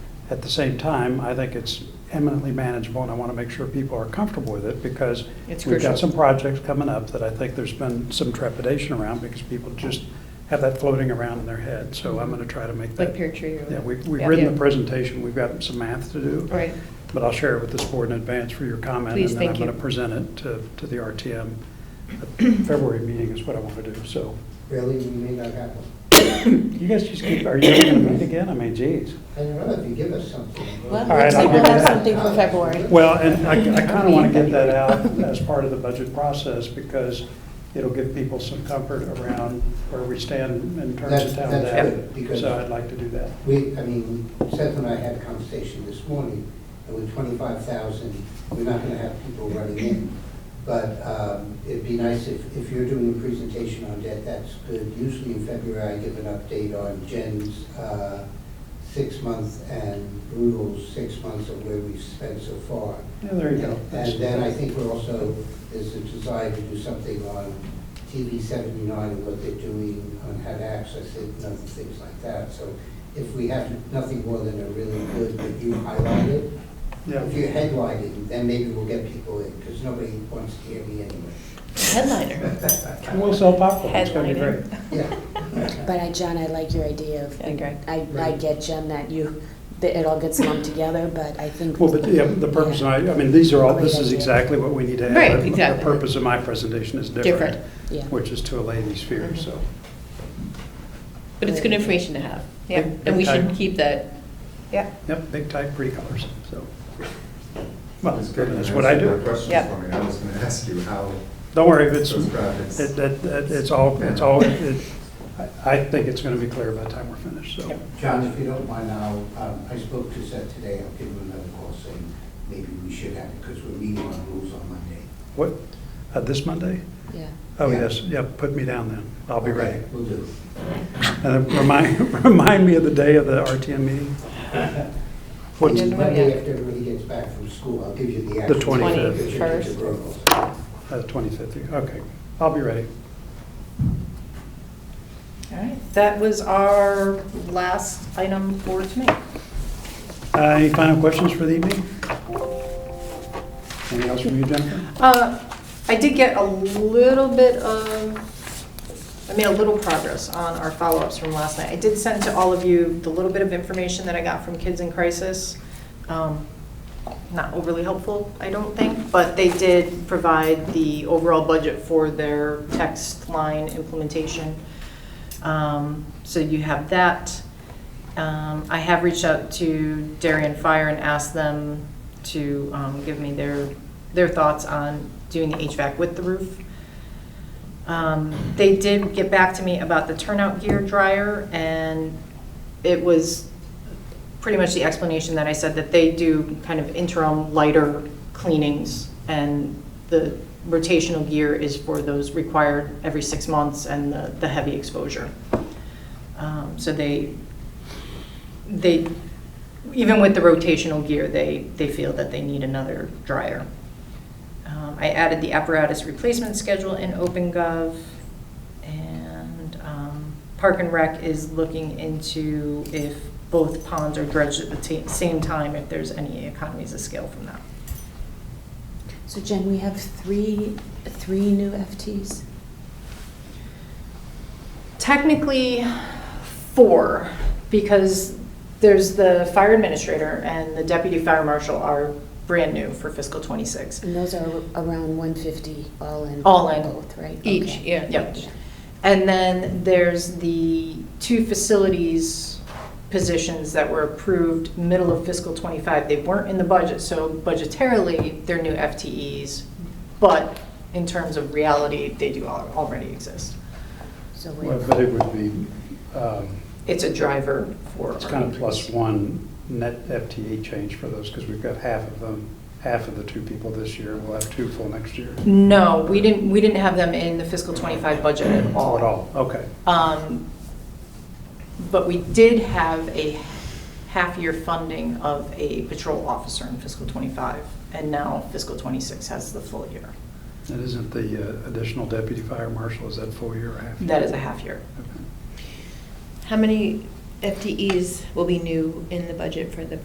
At the same time, I think it's eminently manageable, and I want to make sure people are comfortable with it, because It's we've crucial. got some projects coming up that I think there's been some trepidation around, because people just have that floating around in their head. So I'm going to try to make that. Like peer tree or. Yeah, we've we've Yeah. written Yeah. the presentation, we've got some math to do. Right, But I'll share it with this board in advance for your comment. Please, And thank then I'm you. going to present it to, to the RTM. The February meeting is what I want to do, so. Really, we may not have one. You guys just keep, are you ever going to meet again? I mean, geez. I don't know if you give us something. Well, All right, looks like I'll we'll do have that. something for February. Well, and I, I kind of want to get that out as part of the budget process because it'll give people some comfort around where we stand in terms of That's- town that's data. good, because- So I'd like to do that. We, I mean, Seth and I had a conversation this morning, and with twenty-five thousand, we're not gonna have people running in. But um, it'd be nice if, if you're doing a presentation on debt, that's good. Usually in February, I give an update on Jen's uh, six-month and Brutal's six months of where we've spent so far. Yeah, there you go. And then I think we're also, there's a desire to do something on TV 79 and what they're doing on how to access it and other things like that. So if we have nothing more than a really good, that you highlight it, Yeah. if you headline it, then maybe we'll get people in, because nobody wants to hear me anyway. headliner. And we'll sell popcorn. It's going to be great. Headlining. Yeah, But I, John, I like your idea of, I agree. I, I get, Jen, that you, that it all gets lumped together, but I think. Well, but yeah, the purpose, of my- I mean, these are all, this is exactly what we need to have. Right, The- exactly. The purpose of my presentation is different, Different. Yeah. which is to allay these fears, so. But it's good information to have. Yeah. And we should Okay. keep that. Yep. Yep, big type, pretty colors, so. Well, That's good. that's what I You do. answered my question Yep. for me. I was going to ask you how Don't worry if it's, those graphics. it- that- that- it's all, it's all, it- I- I think it's going to be clear by the time we're finished, so. Yep. John, if you don't mind, I'll, um, I spoke to Seth today, I'll give him another call saying maybe we should have it, because we're meeting on rules on Monday. What, uh, this Monday? Yeah. Oh, Yeah. yes, yeah, put me down then. I'll be Okay, ready. Will do. And then remind, remind me of the day of the RTM meeting. What's- didn't know Monday yet. after everybody gets back from school, I'll give you the. The actual- 25th. Because you're into Brussels. Uh, 25th, okay. I'll be ready. All right, that was our last item for tonight. Uh, Any final questions for the evening? Anything else from you, Jennifer? Uh, I did get a little bit of, I made a little progress on our follow-ups from last night. I did send to all of you the little bit of information that I got from Kids in Crisis. Um, Not overly helpful, I don't think, but they did provide the overall budget for their text line implementation. Um, So you have that. Um, I have reached out to Darien Fire and asked them to um, give me their, their thoughts on doing the HVAC with the roof. Um, They did get back to me about the turnout gear dryer, and it was pretty much the explanation that I said, that they do kind of interim lighter cleanings, and the rotational gear is for those required every six months and the the heavy exposure. Um, So they, they, even with the rotational gear, they, they feel that they need another dryer. Um, I added the apparatus replacement schedule in OpenGov, and um, Park and Rec is looking into if both ponds are dredged at the ta- same time, if there's any economies of scale from that. So Jen, we have three, three new FTs. Technically, four, because there's the fire administrator and the deputy fire marshal are brand new for fiscal '26. And those are around 150 all in. All in. Both, right? Each, Okay. yeah. Yep. And then there's the two facilities positions that were approved middle of fiscal '25. They weren't in the budget, so budgetarily, they're new FTEs, but in terms of reality, they do al- already exist. So Well, we're, But it would be, um, It's a driver for. it's kind of plus one net FTE change for those, because we've got half of them, half of the two people this year, and we'll have two full next year. No, we didn't, we didn't have them in the fiscal '25 budget at all. All in all, okay. Um, But we did have a half-year funding of a patrol officer in fiscal '25, and now fiscal '26 has the full year. And isn't the uh, additional deputy fire marshal, is that full year or half? year? That is a half-year. Okay. How many FTEs will be new in the budget for the